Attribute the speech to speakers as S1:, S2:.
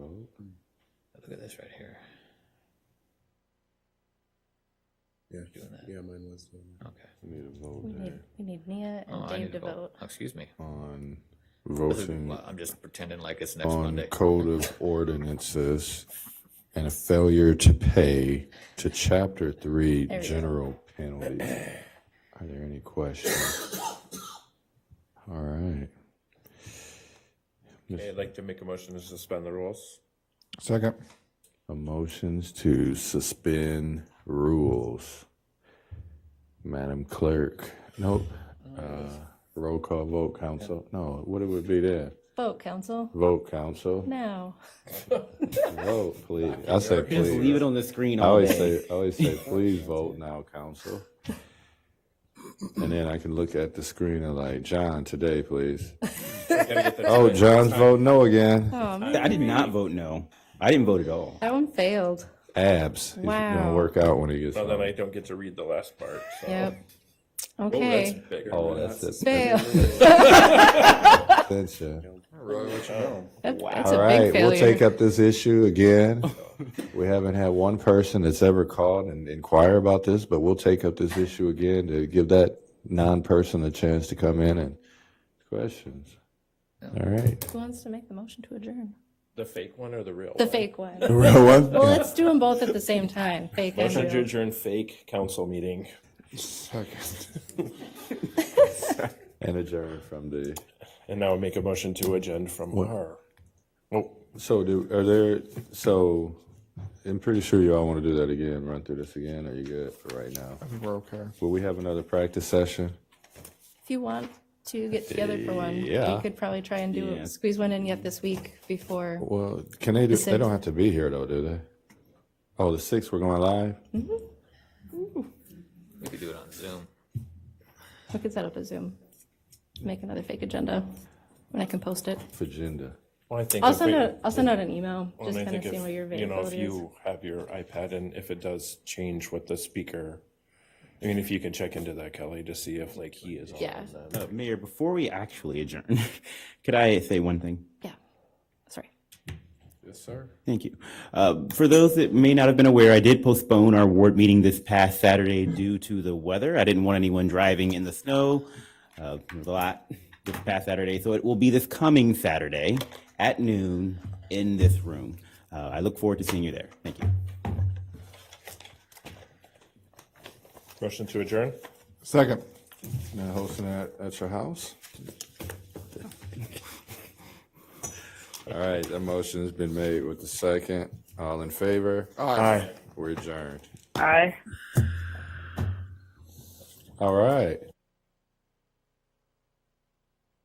S1: Look at this right here.
S2: Yeah,
S1: Doing that.
S2: yeah, mine was doing that.
S1: Okay.
S3: We need a vote
S4: We need, we need Nia and
S1: Oh, I
S4: Dave
S1: need to
S4: to vote.
S1: Oh, Excuse me.
S3: on
S1: This is-
S3: voting
S1: well, I'm just pretending like it's next
S3: on
S1: Monday.
S3: code of ordinances and a failure to pay to chapter three
S4: There we go.
S3: general penalties. Are there any questions? All right.
S5: Okay, I'd like to make a motion to suspend the rules.
S3: Second. A motion's to suspend rules. Madam Clerk, nope. Uh, roll call vote, council. No, what it would be there?
S4: Vote, council.
S3: Vote, council.
S4: Now.
S3: Vote, please. I say
S6: Just leave it
S3: please.
S6: on the screen
S3: uh, I
S6: all
S3: always
S6: day.
S3: say, I always say, please vote now, council. And then I can look at the screen and like, John, today, please.
S5: Gotta get the-
S3: Oh, John's vote no again.
S4: Oh, man,
S6: I did not vote no. I didn't vote at all.
S4: that one failed.
S3: Abs. He's gonna
S4: Wow.
S3: work out when he gets
S5: So then
S3: home.
S5: I don't get to read the last part, so.
S4: Yep.
S5: Oh, that's
S4: Okay.
S5: bigger.
S3: Oh, that's it.
S4: Fail.
S3: That's it.
S5: Uh,
S4: That- That's
S3: All
S4: a
S3: right,
S4: big failure.
S3: we'll take up this issue again. We haven't had one person that's ever called and inquire about this, but we'll take up this issue again to give that non-person a chance to come in and questions. All right.
S4: Who wants to make the motion to adjourn?
S5: The fake one or the real?
S4: The
S5: one?
S4: fake one.
S3: Real one?
S4: Well, let's do them both at the same time. Fake and
S5: Motion to
S4: real.
S5: adjourn fake council meeting.
S3: And adjourn from the,
S5: And now make a motion to adjourn from our. Oh,
S3: so do, are there, so, I'm pretty sure you all want to do that again, run through this again, are you good for right now?
S7: We're okay.
S3: Will we have another practice session?
S4: If you want to get together for one,
S3: Yeah.
S4: you could probably try and do
S6: Yeah.
S4: squeeze one in yet this week before.
S3: Well, can they do, they
S4: sixth.
S3: don't have to be here though, do they? Oh, the sixth, we're going live?
S1: We could do it on Zoom.
S4: We could set up a Zoom, make another fake agenda, and I can post it.
S3: Agenda.
S5: well, I think.
S4: I'll
S5: if
S4: send
S5: we-
S4: out, I'll send out an email,
S5: well,
S4: just
S5: I
S4: kind of
S5: think if,
S4: seeing what your
S5: You know, if
S4: availability is.
S5: you have your iPad and if it does change what the speaker, I mean, if you can check into that, Kelly, to see if like he is on.
S4: Yeah.
S5: then.
S6: Uh, Mayor, before we actually adjourn, could I say one thing?
S4: Yeah, sorry.
S5: Yes, sir.
S6: Thank you. Uh, For those that may not have been aware, I did postpone our ward meeting this past Saturday due to the weather. I didn't want anyone driving in the snow. Uh, There was a lot this past Saturday, so it will be this coming Saturday at noon in this room. Uh, I look forward to seeing you there. Thank you.
S5: Motion to adjourn?
S3: Second. Now hosting that at your house? All right, that motion's been made with the second. All in favor?
S5: Aye.
S3: We're adjourned.
S8: Aye.
S3: All right.